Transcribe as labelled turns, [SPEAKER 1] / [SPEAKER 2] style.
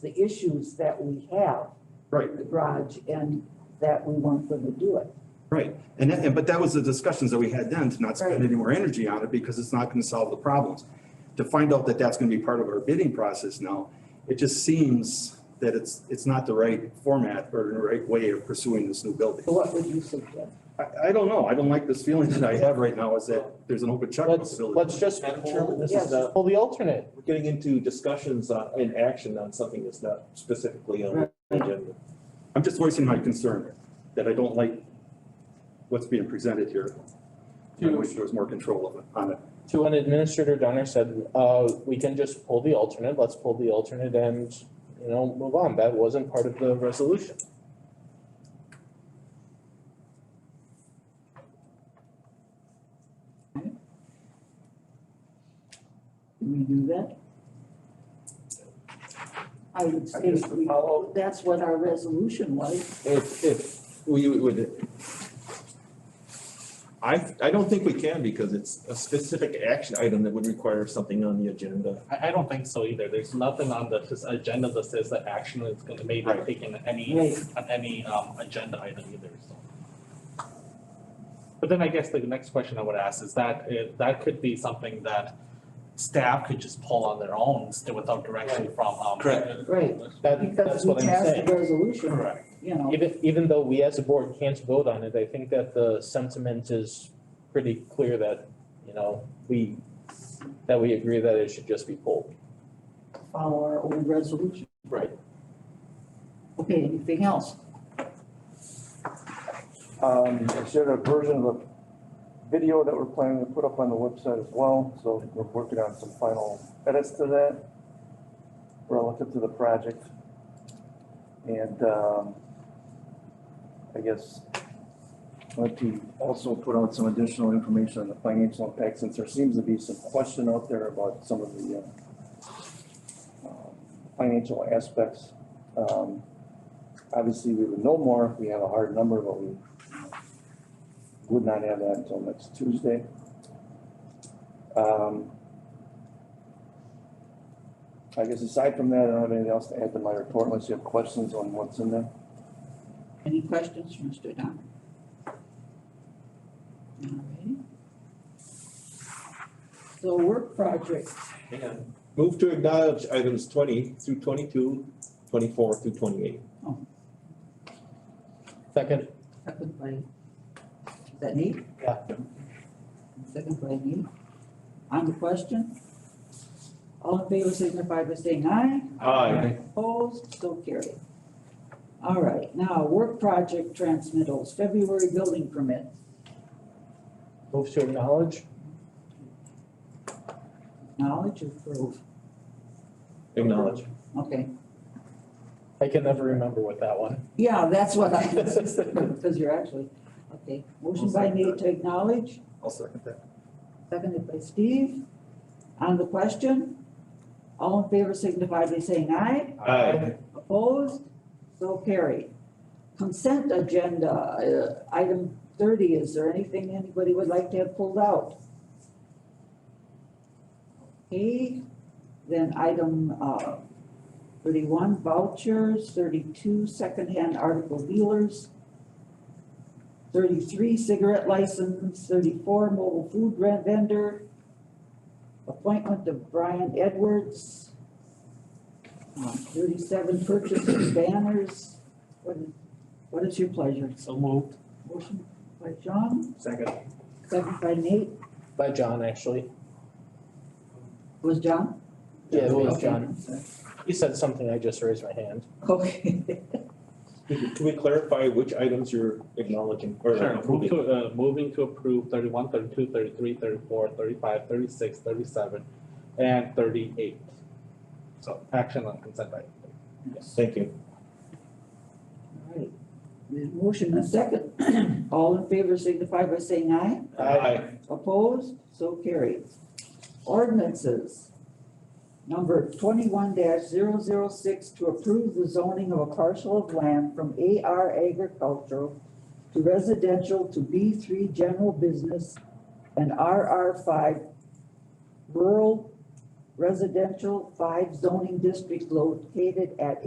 [SPEAKER 1] the issues that we have.
[SPEAKER 2] Right.
[SPEAKER 1] with The garage and that we weren't going to do it.
[SPEAKER 2] Right, and, that- and, but that was the discussions that we had then, to not spend
[SPEAKER 1] Right.
[SPEAKER 2] any more energy on it, because it's not gonna solve the problems. To find out that that's gonna be part of our bidding process now, it just seems that it's, it's not the right format or the right way of pursuing this new building.
[SPEAKER 1] So what would you suggest?
[SPEAKER 2] I, I don't know, I don't like this feeling that I have right now, is that there's an open check
[SPEAKER 3] Let's,
[SPEAKER 2] possibility.
[SPEAKER 3] let's just,
[SPEAKER 4] Madam
[SPEAKER 3] Chairman, this
[SPEAKER 1] Yes.
[SPEAKER 3] is, uh, well, the alternate, we're getting into discussions
[SPEAKER 4] uh,
[SPEAKER 3] on, in action on something that's not specifically on the agenda.
[SPEAKER 2] I'm just voicing my concern, that I don't like what's being presented here. I
[SPEAKER 3] To-
[SPEAKER 2] wish there was more control of it, on it.
[SPEAKER 3] To an administrator, Donner said, uh, we can just pull the alternate, let's pull the alternate and, you know, move on, that wasn't part of the resolution.
[SPEAKER 1] Can we do that? I would
[SPEAKER 2] I
[SPEAKER 1] say
[SPEAKER 2] guess the
[SPEAKER 1] we,
[SPEAKER 2] follow-
[SPEAKER 1] that's what our resolution was.
[SPEAKER 4] If, if we would. I, I don't think we can because it's a specific action item that would require something on the agenda.
[SPEAKER 5] I, I don't think so either. There's nothing on the, this agenda that says that action is gonna be
[SPEAKER 2] Right.
[SPEAKER 5] taken on any,
[SPEAKER 1] Right.
[SPEAKER 5] on any, um, agenda item either, so. But then I guess the next question I would ask is that, uh, that could be something that staff could just pull on their own still without direction from, um.
[SPEAKER 4] Correct.
[SPEAKER 1] Right.
[SPEAKER 3] That, that's
[SPEAKER 1] Because we
[SPEAKER 3] what I'm
[SPEAKER 1] passed
[SPEAKER 3] saying.
[SPEAKER 1] the resolution,
[SPEAKER 5] Correct.
[SPEAKER 1] you know.
[SPEAKER 3] Even, even though we as a board can't vote on it, I think that the sentiment is pretty clear that, you know, we, that we agree that it should just be pulled.
[SPEAKER 1] follow our old resolution.
[SPEAKER 3] Right.
[SPEAKER 1] Okay, anything else?
[SPEAKER 6] Um, I shared a version of the video that we're planning to put up on the website as well, so we're working on some final edits to that relative to the project. And, um, I guess, let to also put out some additional information on the financial impact, since there seems to be some question out there about some of the, uh, um, financial aspects. Um, obviously, we would know more if we have a hard number, but we would not have that until next Tuesday. Um, I guess aside from that, I don't have anything else to add to my report unless you have questions on what's in there.
[SPEAKER 1] Any questions, for Mr. Donner? All righty. So work project,
[SPEAKER 4] And move to acknowledge items twenty through 22, 24 through twenty-eight.
[SPEAKER 3] Second,
[SPEAKER 1] second by, is that Nate?
[SPEAKER 3] Yeah.
[SPEAKER 1] Second by Nate. On the question? All in favor signify by saying aye.
[SPEAKER 4] Aye.
[SPEAKER 1] Opposed, so carried. All right, now work project transmittals, February building permit.
[SPEAKER 3] move to acknowledge?
[SPEAKER 1] Knowledge approved,
[SPEAKER 4] Acknowledge.
[SPEAKER 1] okay.
[SPEAKER 3] I can never remember what that one.
[SPEAKER 1] Yeah, that's what I, because you're actually, okay. Motion by Nate to acknowledge,
[SPEAKER 2] I'll second that.
[SPEAKER 1] seconded by Steve. On the question, all in favor signify by saying aye.
[SPEAKER 4] Aye.
[SPEAKER 1] Opposed? So carried. Consent agenda, uh, item thirty, is there anything anybody would like to have pulled out? Okay, then item, uh, thirty-one vouchers, thirty-two secondhand article dealers, thirty-three cigarette license, thirty-four mobile food rent vendor, appointment of Brian Edwards, um, Thirty-seven purchases banners. What is, what is your pleasure?
[SPEAKER 5] So moved.
[SPEAKER 1] Motion by John,
[SPEAKER 3] Second.
[SPEAKER 1] second by Nate.
[SPEAKER 3] By John, actually.
[SPEAKER 1] Was John?
[SPEAKER 3] Yeah, it was
[SPEAKER 1] Okay.
[SPEAKER 3] John. He said something, I just raised my hand.
[SPEAKER 1] Okay.
[SPEAKER 4] Could you- Can we clarify which items you're acknowledging or
[SPEAKER 5] Sure, move
[SPEAKER 4] approving?
[SPEAKER 5] to, uh, moving to approve thirty-one, thirty-two, thirty-three, thirty-four, thirty-five, thirty-six, thirty-seven, and thirty-eight. So action on consent item.
[SPEAKER 4] Thank you.
[SPEAKER 1] All right. There's motion and second. All in favor signify by saying aye.
[SPEAKER 4] Aye.
[SPEAKER 1] Opposed? So carried. Ordinances. Number twenty-one 6 to approve the zoning of a parcel of land from AR agricultural to residential to B three general business and RR five rural residential five zoning district located at